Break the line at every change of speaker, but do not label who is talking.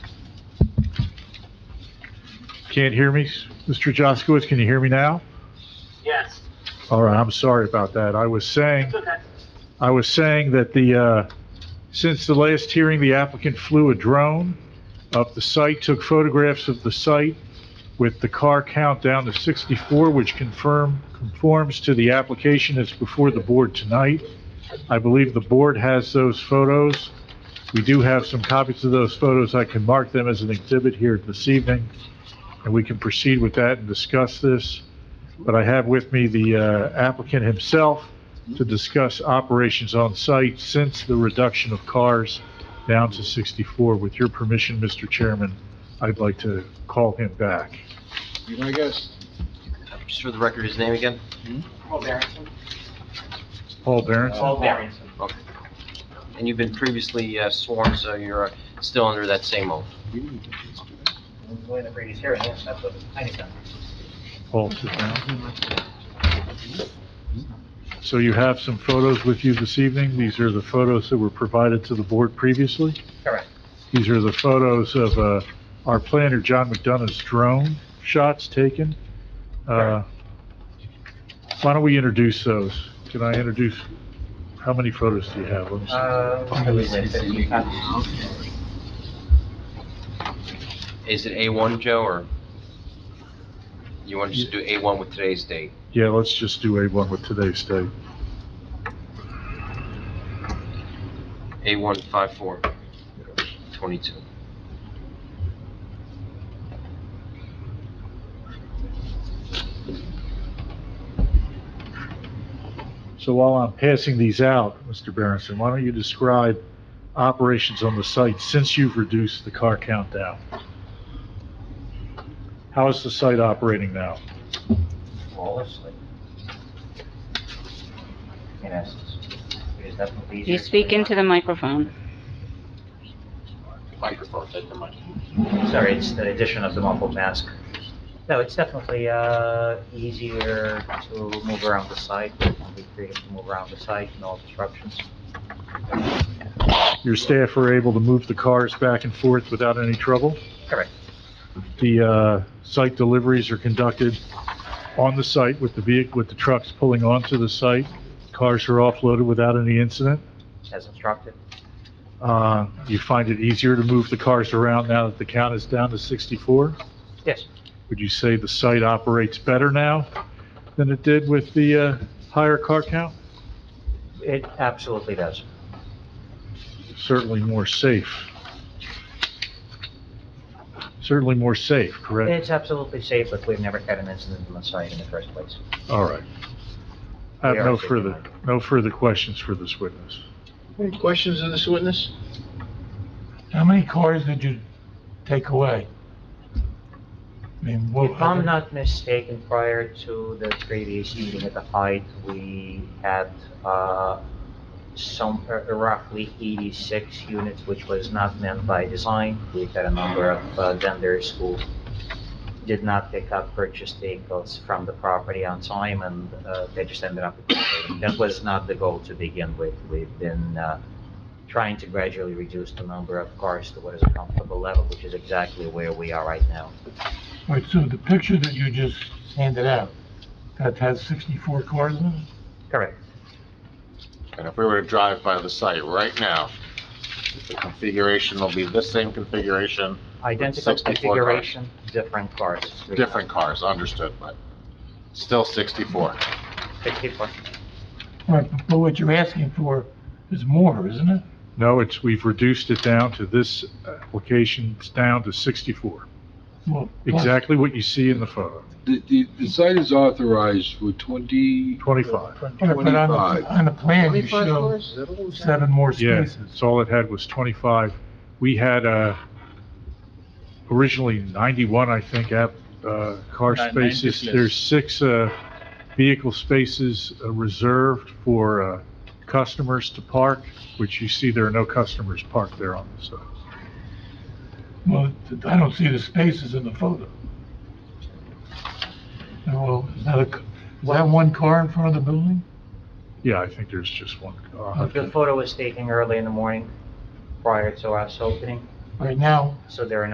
Can't hear me, Mr. Jaskowitz, can you hear me now?
Yes,
All right, I'm sorry about that. I was saying,
it's okay.
I was saying that the, uh, since the last hearing, the applicant flew a drone up the site, took photographs of the site with the car count down to 64, which confirm, conforms to the application that's before the board tonight. I believe the board has those photos. We do have some copies of those photos. I can mark them as an exhibit here this evening, and we can proceed with that and discuss this. But I have with me the uh, applicant himself to discuss operations on site since the reduction of cars down to 64. With your permission, Mr. Chairman, I'd like to call him back.
Can I guess?
Just for the record, his name again?
Paul Barrington.
Paul Barron?
Paul Barrington.
Okay. And you've been previously uh, sworn, so you're uh, still under that same oath.
Going to Brady's hearing, yes, that's what I need to
Paul, sit down. So you have some photos with you this evening. These are the photos that were provided to the board previously.
Correct.
These are the photos of uh, our planner, John McDonough's drone shots taken. Uh, Why don't we introduce those? Can I introduce, how many photos do you have? Let me see.
Uh, I believe it's 15 copies.
Is it A1, Joe, or you want to just do A1 with today's date?
Yeah, let's just do A1 with today's date.
A1 54 22.
So while I'm passing these out, Mr. Berenson, why don't you describe operations on the site since you've reduced the car count down? How is the site operating now?
Flawlessly. In essence, it is definitely easier.
You speak into the microphone.
Microphone,
Sorry, it's the addition of the muffled mask. No, it's definitely uh, easier to move around the site, be creative to move around the site, no obstructions.
Your staff were able to move the cars back and forth without any trouble?
Correct.
The uh, site deliveries are conducted on the site with the vehicle, with the trucks pulling onto the site. Cars are offloaded without any incident.
As instructed,
Uh, You find it easier to move the cars around now that the count is down to 64?
yes,
Would you say the site operates better now than it did with the uh, higher car count?
it absolutely does.
Certainly more safe. Certainly more safe, correct?
It's absolutely safe, but we've never had an incident on the site in the first place.
All right. I have
We are
no
safe.
further, no further questions for this witness.
Any questions of this witness?
How many cars did you take away? I mean, what?
If I'm not mistaken, prior to the previous meeting at the height, we had uh, some, uh, roughly 86 units, which was not meant by design. We had a number of uh, vendors who did not pick up purchased vehicles from the property on time, and uh, they just ended up. That was not the goal to begin with. We've been uh, trying to gradually reduce the number of cars to what is a comfortable level, which is exactly where we are right now.
Wait, so the picture that you just handed out, that has 64 cars in it?
Correct.
And if we were to drive by the site right now, the configuration will be the same configuration,
Identical
64 cars.
configuration, different cars.
different cars, understood, but still 64.
Sixty-four.
Right, but what you're asking for is more, isn't it?
No, it's, we've reduced it down to this application, it's down to 64.
Well, plus-
Exactly what you see in the photo,
The, the, the site is authorized for twenty,
25.
Right, But on
twenty-five.
the, on the plan, you show
cars? Is that what we said?
seven more
Yeah,
spaces.
so all it had was 25. We had uh, originally 91, I think, app- uh, car
Nine-
spaces.
90, yes.
There's six uh, vehicle spaces uh, reserved for uh, customers to park, which you see there are no customers parked there on uh, the side.
Well, th- I don't see the spaces in the photo. And Well, is that a c is that one car in front of the building?
Yeah, I think there's just one. uh, I'll have
The
to-
photo was taken early in the morning prior to us opening,
Right now,
so there are no